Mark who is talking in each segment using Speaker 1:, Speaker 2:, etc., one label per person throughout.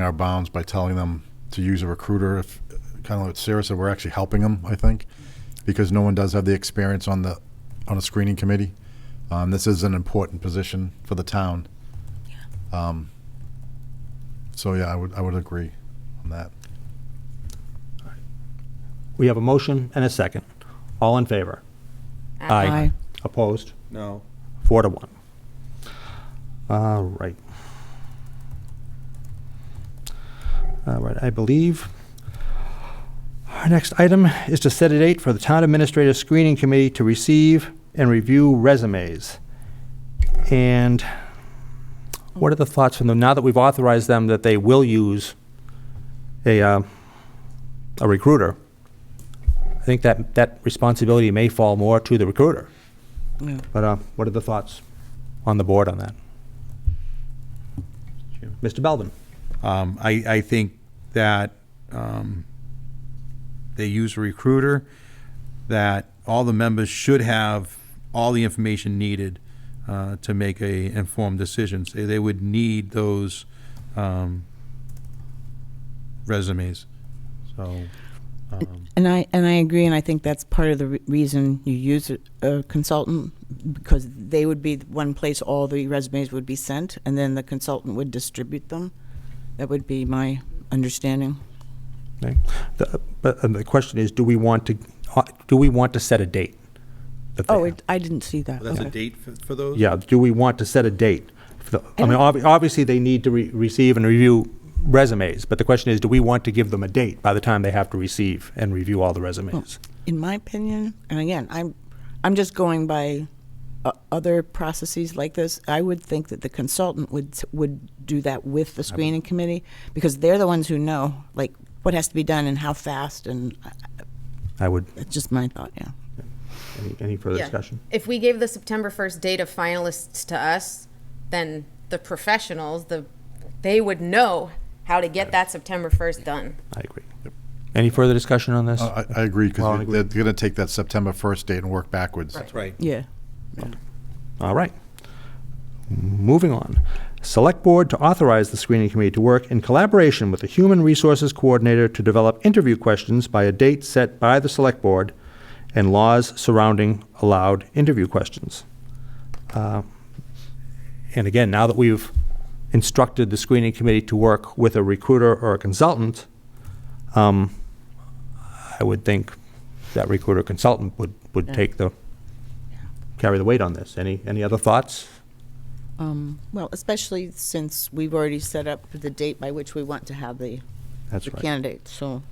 Speaker 1: our bounds by telling them to use a recruiter. If kind of what Sarah said, we're actually helping them. I think because no one does have the experience on the on a screening committee. Um, this is an important position for the town. Um, so yeah, I would I would agree on that.
Speaker 2: We have a motion and a second. All in favor?
Speaker 3: Aye.
Speaker 2: Opposed?
Speaker 4: No.
Speaker 2: Four to one. All right. All right, I believe our next item is to set a date for the Town Administrator Screening Committee to receive and review resumes. And what are the thoughts from them, now that we've authorized them that they will use a, uh, a recruiter? I think that, that responsibility may fall more to the recruiter. But uh, what are the thoughts on the board on that? Mr. Belvin?
Speaker 4: Um, I, I think that um, they use a recruiter, that all the members should have all the information needed uh, to make a informed decision. So They would need those um, resumes, so. um,
Speaker 3: And I, and I agree, and I think that's part of the re- reason you use a- a consultant, because they would be the one place all the resumes would be sent, and then the consultant would distribute them. That would be my understanding.
Speaker 2: Okay. The- But uh, the question is, do we want to, uh, do we want to set a date? that they
Speaker 3: Oh,
Speaker 2: have?
Speaker 3: it- I didn't see that.
Speaker 4: That's a
Speaker 3: Okay.
Speaker 4: date for for those?
Speaker 2: Yeah, do we want to set a date? for the- I
Speaker 3: I
Speaker 2: mean,
Speaker 3: don't-
Speaker 2: obvi- obviously, they need to re- receive and review resumes, but the question is, do we want to give them a date by the time they have to receive and review all the resumes?
Speaker 3: In my opinion, and again, I'm, I'm just going by o- other processes like this, I would think that the consultant would, s- would do that with the screening committee, because they're the ones who know, like, what has to be done and how fast, and uh,
Speaker 2: I would,
Speaker 3: that's just my thought, yeah.
Speaker 2: any- any further
Speaker 5: Yeah.
Speaker 2: discussion?
Speaker 5: If we gave the September 1st date of finalists to us, then the professionals, the, they would know how to get that September 1st done.
Speaker 2: I agree. Any further discussion on this?
Speaker 1: I, I agree
Speaker 2: Uh, Well, I
Speaker 1: because
Speaker 2: agree.
Speaker 1: they're going to take that September first date and work backwards.
Speaker 4: That's right.
Speaker 3: Yeah.
Speaker 2: All right. Moving on. Select Board to authorize the screening committee to work in collaboration with the Human Resources Coordinator to develop interview questions by a date set by the Select Board and laws surrounding allowed interview questions. Uh, And again, now that we've instructed the screening committee to work with a recruiter or a consultant, um, I would think that recruiter consultant would, would take the, carry the weight on this. Any, any other thoughts?
Speaker 3: Um, Well, especially since we've already set up the date by which we want to have the
Speaker 2: That's
Speaker 3: the
Speaker 2: right.
Speaker 3: candidates, so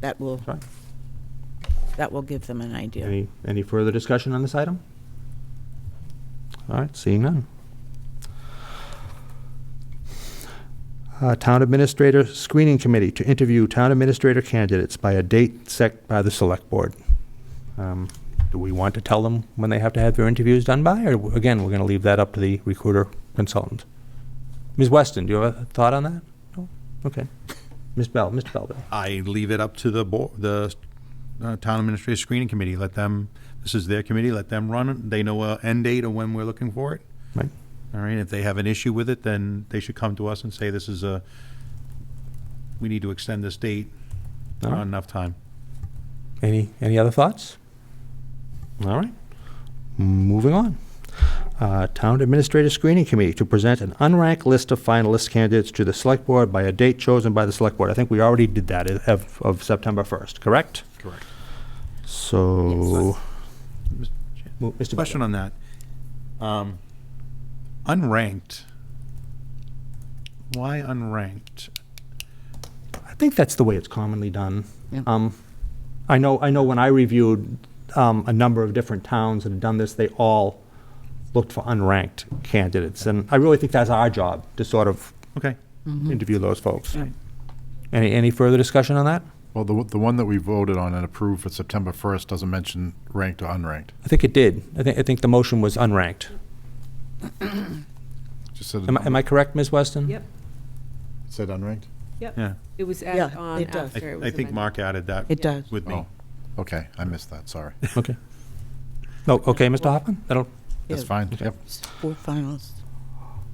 Speaker 3: that will,
Speaker 2: That's right.
Speaker 3: that will give them an idea.
Speaker 2: Any, any further discussion on this item? All right, seeing none. Uh, Town Administrator Screening Committee to interview town administrator candidates by a date set by the Select Board. Um, Do we want to tell them when they have to have their interviews done by, or w- again, we're going to leave that up to the recruiter consultant? Ms. Weston, do you have a thought on that? No? Okay. Ms. Bell, Mr. Belvin?
Speaker 4: I leave it up to the board, the uh, town administrative screening committee, let them, this is their committee, let them run it, they know a end date of when we're looking for it.
Speaker 2: Right.
Speaker 4: All right, if they have an issue with it, then they should come to us and say, this is a, we need to extend this date,
Speaker 2: All
Speaker 4: not
Speaker 2: right.
Speaker 4: enough time.
Speaker 2: Any, any other thoughts? All right. Moving on. Uh, Town Administrator Screening Committee to present an unranked list of finalist candidates to the Select Board by a date chosen by the Select Board. I think we already did that i- of, of September 1st, correct?
Speaker 4: Correct.
Speaker 2: So.
Speaker 4: Yes.
Speaker 2: Mo- Mr.
Speaker 4: Question on that. Um, Unranked. Why unranked?
Speaker 2: I think that's the way it's commonly done.
Speaker 3: Yeah.
Speaker 2: Um, I know, I know when I reviewed um, a number of different towns that had done this, they all looked for unranked candidates. And I really think that's our job to sort of
Speaker 4: Okay.
Speaker 2: interview those folks. Any, any further discussion on that?
Speaker 1: Well, the the one that we voted on and approved for September first doesn't mention ranked or unranked.
Speaker 2: I think it did. I think, I think the motion was unranked.
Speaker 1: Just said
Speaker 2: Am I, am I correct, Ms. Weston?
Speaker 6: Yep,
Speaker 1: said unranked.
Speaker 4: Yeah.
Speaker 6: yep. It was
Speaker 3: Yeah,
Speaker 6: added on
Speaker 3: it does.
Speaker 4: I,
Speaker 6: after it was
Speaker 4: I think
Speaker 6: amended.
Speaker 4: Mark added that
Speaker 3: It does.
Speaker 4: with me.
Speaker 1: Oh, okay, I missed that. Sorry,
Speaker 2: Okay. No, okay, Mr. Hoffman? I don't,
Speaker 1: that's
Speaker 3: Yeah.
Speaker 1: fine. Yep.
Speaker 3: Four finalists.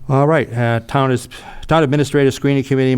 Speaker 2: All right, uh, Town is- Town Administrator Screening Committee